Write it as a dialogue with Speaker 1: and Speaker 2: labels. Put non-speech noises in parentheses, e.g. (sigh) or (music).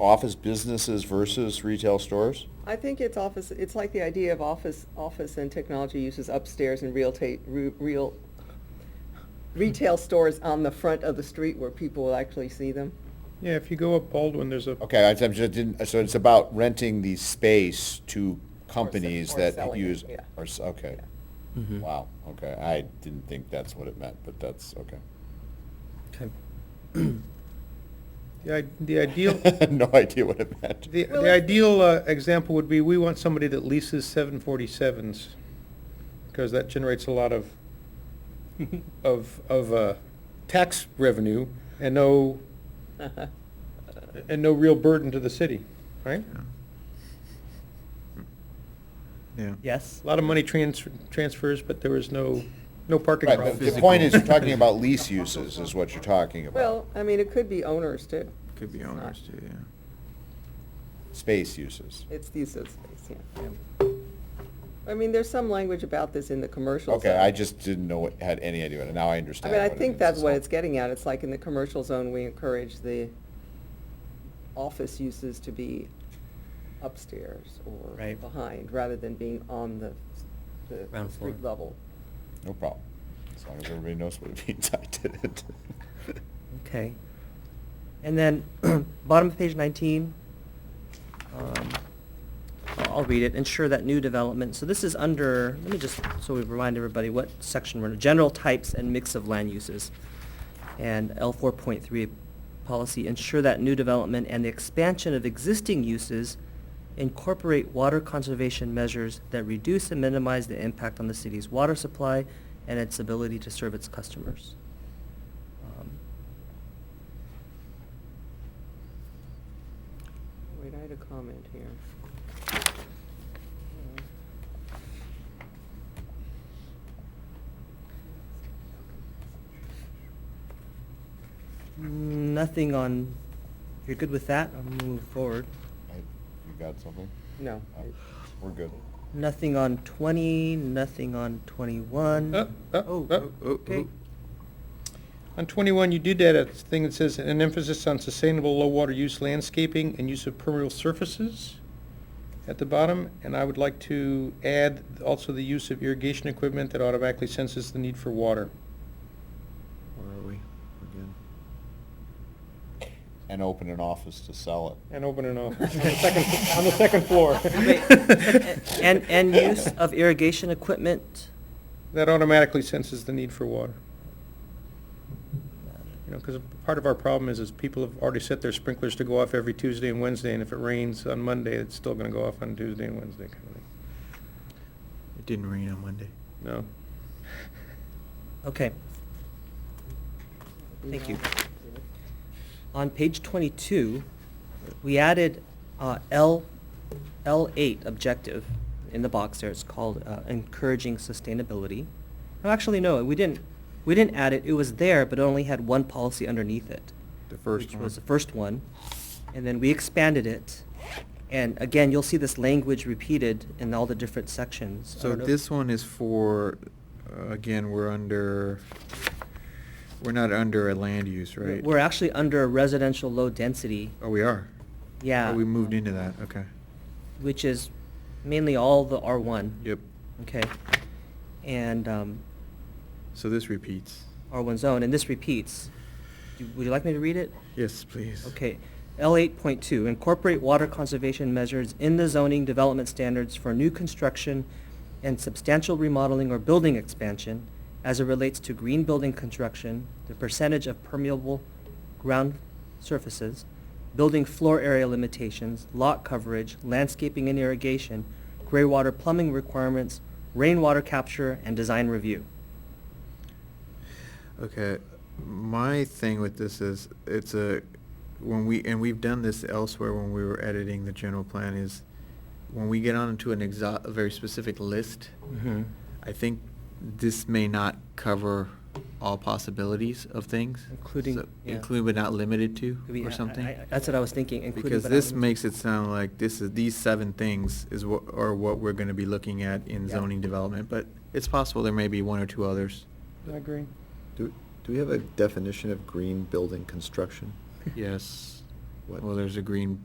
Speaker 1: office businesses versus retail stores?
Speaker 2: I think it's office, it's like the idea of office, office and technology uses upstairs and real ta, re- real, retail stores on the front of the street where people will actually see them. (laughs)
Speaker 3: Yeah, if you go up Baldwin, there's a,
Speaker 1: Okay, I I'm just didn't, so it's about renting the space to companies
Speaker 2: or
Speaker 1: that
Speaker 2: selling it,
Speaker 1: use,
Speaker 2: yeah.
Speaker 1: or, s- okay. Wow, okay, I didn't think that's what it meant, but that's, okay.
Speaker 3: Okay. the i-
Speaker 1: (laughs)
Speaker 3: the ideal,
Speaker 1: No idea what it meant.
Speaker 3: the
Speaker 2: Well,
Speaker 3: the
Speaker 2: it's-
Speaker 3: ideal uh, example would be, we want somebody that leases 747s, because that generates a lot
Speaker 1: (laughs)
Speaker 3: of, of, of uh, tax revenue and no, and no real burden to the city, right?
Speaker 4: Yeah.
Speaker 5: Yes?
Speaker 3: A lot of money transfer- transfers, but there was no, no parking
Speaker 1: Right, but
Speaker 3: problems.
Speaker 1: the point is, you're talking
Speaker 2: (laughs)
Speaker 3: (laughs)
Speaker 1: about lease uses is what you're talking about.
Speaker 2: Well, I mean, it could be owners too.
Speaker 4: Could be
Speaker 2: It's not-
Speaker 4: owners too, yeah.
Speaker 1: Space uses.
Speaker 2: It's the use of space, yeah. I mean, there's some language about this in the commercial
Speaker 1: Okay,
Speaker 2: zone.
Speaker 1: I just didn't know, what had any idea, and now I
Speaker 2: I
Speaker 1: understand
Speaker 2: mean, I
Speaker 1: what it
Speaker 2: think
Speaker 1: is,
Speaker 2: that's what
Speaker 1: so.
Speaker 2: it's getting at. It's like in the commercial zone, we encourage the office uses to be upstairs or
Speaker 5: Right.
Speaker 2: behind, rather than being on the, the
Speaker 5: Ground floor.
Speaker 2: street level.
Speaker 1: No problem, as long as everybody knows what it (laughs) means, I did
Speaker 2: (laughs)
Speaker 1: it.
Speaker 5: Okay. And then, (clears throat) bottom of page nineteen, um, I'll I'll read it, ensure that new development, so this is under, let me just, so we remind everybody what section we're in, general types and mix of land uses. And L four point three policy, ensure that new development and the expansion of existing uses incorporate water conservation measures that reduce and minimize the impact on the city's water supply and its ability to serve its customers. Um,
Speaker 2: Wait, I had a comment here.
Speaker 5: Nothing on, if you're good with that, I'll move forward.
Speaker 1: I- You got something?
Speaker 2: No.
Speaker 1: Oh, We're good.
Speaker 5: Nothing on twenty, nothing on twenty-one.
Speaker 3: Uh, uh, uh,
Speaker 5: Oh,
Speaker 4: oh,
Speaker 5: okay.
Speaker 4: oh.
Speaker 3: On twenty-one, you did add a thing that says, an emphasis on sustainable low-water use landscaping and use of permeable surfaces at the bottom, and I would like to add also the use of irrigation equipment that automatically senses the need for water.
Speaker 4: Where are we? Again.
Speaker 1: And open an office to sell it.
Speaker 3: And
Speaker 5: (laughs)
Speaker 3: open an office on the second, on the second floor.
Speaker 5: Wait, And, and use of irrigation equipment?
Speaker 3: That automatically senses the need for water. You know, because part of our problem is, is people have already set their sprinklers to go off every Tuesday and Wednesday, and if it rains on Monday, it's still gonna go off on Tuesday and Wednesday kind of thing.
Speaker 4: It didn't rain on Monday.
Speaker 3: No?
Speaker 5: Okay. Thank you. On page twenty-two, we added, uh, L, L eight objective in the box there, it's called, uh, encouraging sustainability. No, actually, no, we didn't, we didn't add it, it was there, but it only had one policy underneath it.
Speaker 4: The first
Speaker 5: Which was the
Speaker 4: one.
Speaker 5: first one, and then we expanded it, and again, you'll see this language repeated in all the different sections. I
Speaker 4: So
Speaker 5: don't know-
Speaker 4: this one is for, uh, again, we're under, we're not under a land use,
Speaker 5: We're-
Speaker 4: right?
Speaker 5: We're actually under residential low density.
Speaker 4: Oh, we are?
Speaker 5: Yeah.
Speaker 4: Oh, we moved into that, okay.
Speaker 5: Which is mainly all the R one.
Speaker 4: Yep.
Speaker 5: Okay. And, um,
Speaker 4: So this repeats.
Speaker 5: R one zone, and this repeats. Do- Would you like me to read it?
Speaker 4: Yes, please.
Speaker 5: Okay, L eight point two, incorporate water conservation measures in the zoning development standards for new construction and substantial remodeling or building expansion as it relates to green building construction, the percentage of permeable ground surfaces, building floor area limitations, lot coverage, landscaping and irrigation, gray water plumbing requirements, rainwater capture, and design review.
Speaker 4: Okay, my thing with this is, it's a, when we, and we've done this elsewhere when we were editing the general plan, is when we get onto an exa, a very specific list, I think this may not cover all possibilities of things.
Speaker 5: Including-
Speaker 4: so-
Speaker 5: yeah.
Speaker 4: Including but not limited to,
Speaker 5: Could be- I-
Speaker 4: or
Speaker 5: I-
Speaker 4: something.
Speaker 5: I- That's what I was thinking, including.
Speaker 4: Because
Speaker 5: but not
Speaker 4: this
Speaker 5: limited-
Speaker 4: makes it sound like this is, these seven things is what, are what we're gonna be looking at in
Speaker 5: Yeah.
Speaker 4: zoning development, but it's possible there may be one or two others.
Speaker 3: I agree.
Speaker 6: Do, do we have a definition of green building construction?
Speaker 4: Yes. Well, there's a green